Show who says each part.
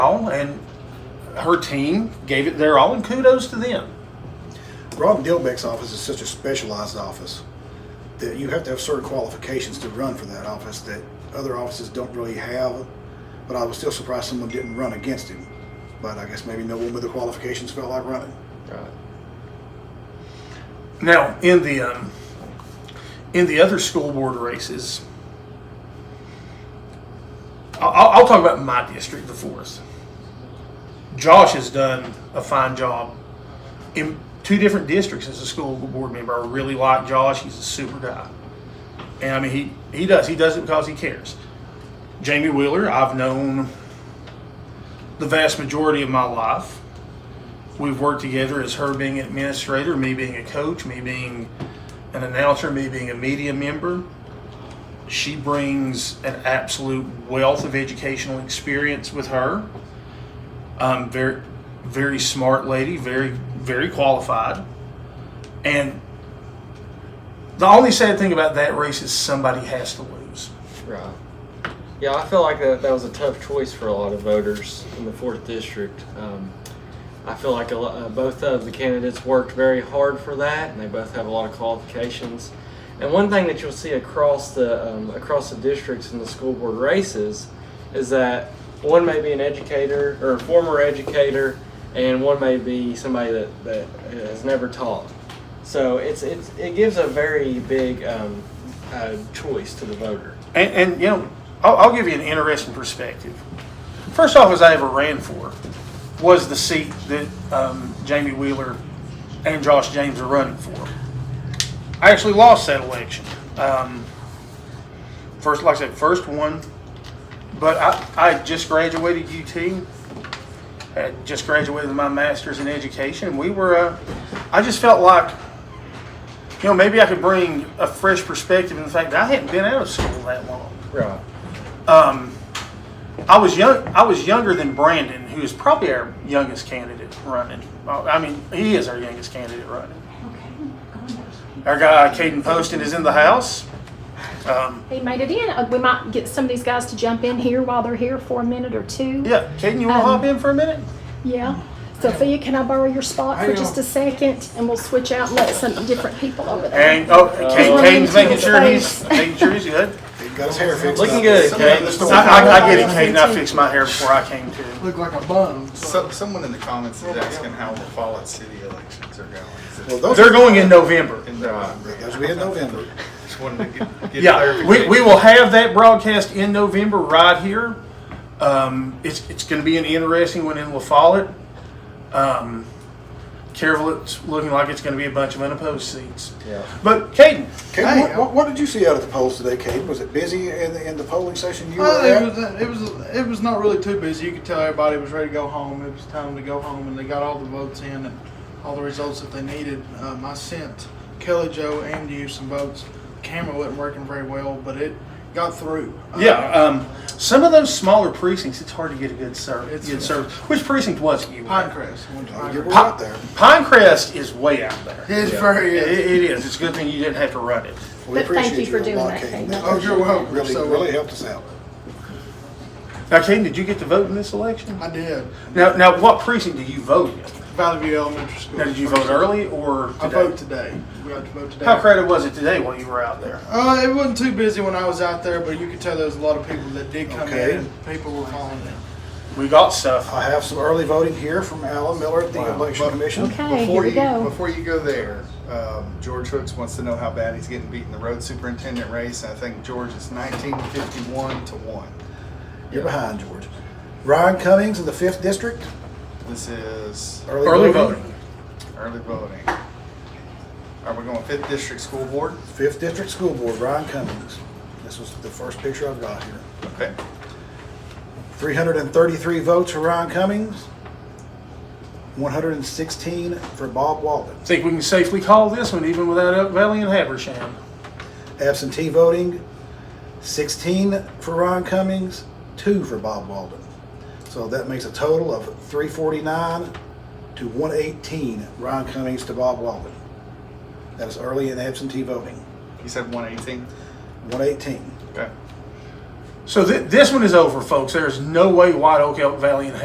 Speaker 1: all, and her team gave it their all, and kudos to them.
Speaker 2: Rob Dilbeck's office is such a specialized office that you have to have certain qualifications to run for that office that other offices don't really have. But I was still surprised someone didn't run against him. But I guess maybe no one with the qualifications felt like running.
Speaker 3: Right.
Speaker 1: Now, in the um, in the other school board races, I- I'll, I'll talk about my district, the fourth. Josh has done a fine job in two different districts as a school board member. I really like Josh; he's a super guy, and I mean he he does he does it because he cares. Jamie Wheeler, I've known the vast majority of my life we've worked together as her being an administrator, me being a coach, me being an announcer, me being a media member. She brings an absolute wealth of educational experience with her. Um, very, very smart lady, very, very qualified. And the only sad thing about that race is somebody has to lose.
Speaker 3: Right. Yeah, I feel like that, that was a tough choice for a lot of voters in the fourth district. Um, I feel like a lo- uh, both of the candidates worked very hard for that, and they both have a lot of qualifications. And one thing that you'll see across the um, across the districts in the school board races is that one may be an educator or a former educator, and one may be somebody that, that has never taught. So it's, it's it gives a very big um, uh, choice to the voter.
Speaker 1: And, and you know, I'll, I'll give you an interesting perspective. First office I ever ran for was the seat that um, Jamie Wheeler and Josh James are running for. I actually lost that election. Um, first, like I said, first one. But I, I just graduated UT. Had just graduated with my master's in education. We were, uh, I just felt like you know, maybe I could bring a fresh perspective in the fact that I hadn't been out of school that long.
Speaker 3: Right.
Speaker 1: I was young. I was younger than Brandon, who is probably our youngest candidate running. Uh, I mean, he is our youngest candidate running. Our guy Caden Poston is in the house. Um,
Speaker 4: They made it in. Uh, We might get some of these guys to jump in here while they're here for a minute or two.
Speaker 1: yeah, Caden, you want to
Speaker 4: Um,
Speaker 1: hop in for a minute?
Speaker 4: Yeah. Sophia, can I borrow your spot for just a second? And we'll switch out and let some different people over there.
Speaker 1: And oh, Caden,
Speaker 4: Uh,
Speaker 1: Caden's making sure he's
Speaker 4: Space.
Speaker 1: making sure he's good.
Speaker 2: He got his hair fixed.
Speaker 3: Looking
Speaker 2: up.
Speaker 3: good,
Speaker 2: Somebody
Speaker 3: Kate.
Speaker 2: in the store.
Speaker 1: I, I, I get it, Caden. I fixed my hair before I came to.
Speaker 5: Look like a bum.
Speaker 6: So, someone in the comments is asking how the Follett city elections are going. Is it
Speaker 2: Well, those,
Speaker 1: They're going in November.
Speaker 6: in November?
Speaker 2: those will be in November.
Speaker 6: Just wanted to get, get
Speaker 1: Yeah, we,
Speaker 6: clarification.
Speaker 1: we will have that broadcast in November right here. Um, it's it's going to be an interesting one in La Follette. Um, Carol's looking like it's going to be a bunch of unopposed seats.
Speaker 3: Yeah.
Speaker 1: But Caden,
Speaker 2: Kate,
Speaker 5: Hey,
Speaker 2: what, what, what did you see out at the polls today, Kate? Was it busy in the, in the polling station you
Speaker 5: Well,
Speaker 4: Oh,
Speaker 2: were at?
Speaker 5: it was it was it was not really too busy. You could tell everybody was ready to go home. It was time to go home, and they got all the votes in and all the results that they needed. Um, I sent Kelly Joe and you some votes. The camera wasn't working very well, but it got through. Uh,
Speaker 1: yeah, um, some of those smaller precincts, it's hard to get a good service.
Speaker 5: It's-
Speaker 1: Good service. Which precinct was it you? were in?
Speaker 5: Pinecrest. I went to
Speaker 2: Oh, you were
Speaker 5: Pinecrest.
Speaker 2: out there.
Speaker 1: Pinecrest is way out there.
Speaker 5: It's very.
Speaker 1: It, it is. It's a good thing you didn't have to run it.
Speaker 2: We
Speaker 4: But thank
Speaker 2: appreciate
Speaker 4: you for
Speaker 2: a
Speaker 4: doing
Speaker 2: lot,
Speaker 4: that,
Speaker 2: Kate.
Speaker 4: Kate.
Speaker 2: That
Speaker 5: Oh, you're welcome.
Speaker 2: Really,
Speaker 5: So-
Speaker 2: really helped us out.
Speaker 1: Now, Caden, did you get to vote in this election?
Speaker 5: I did.
Speaker 1: Now, now, what precinct do you vote in?
Speaker 5: Valley View Elementary School.
Speaker 1: Now, did you vote early or today?
Speaker 5: I vote today. We got to vote today.
Speaker 1: How crowded was it today while you were out there?
Speaker 5: Uh, it wasn't too busy when I was out there, but you could tell there was a lot of people that did come
Speaker 2: Okay.
Speaker 5: in. And people were calling in.
Speaker 1: We got stuff.
Speaker 2: I have some early voting here from Alan Miller at the Election Commission.
Speaker 4: Okay, here
Speaker 6: Before
Speaker 4: we
Speaker 6: you,
Speaker 4: go.
Speaker 6: before you go there, um, George Hooks wants to know how bad he's getting beat in the road superintendent race. I think George is 1951 to 1.
Speaker 2: You're behind, George. Ryan Cummings in the 5th District.
Speaker 6: This is
Speaker 1: Early voting.
Speaker 6: early voting. Are we going 5th District School Board?
Speaker 2: 5th District School Board, Ryan Cummings. This was the first picture I've got here.
Speaker 6: Okay.
Speaker 2: 333 votes for Ryan Cummings, 116 for Bob Walden.
Speaker 1: I think we can safely call this one even without Elk Valley and Habersham.
Speaker 2: Absentee voting, 16 for Ryan Cummings, 2 for Bob Walden. So that makes a total of 349 to 118, Ryan Cummings to Bob Walden. That is early in absentee voting,
Speaker 6: You said 118?
Speaker 2: 118.
Speaker 6: Okay.
Speaker 1: So th- this one is over, folks. There is no way White Oak, Elk Valley, and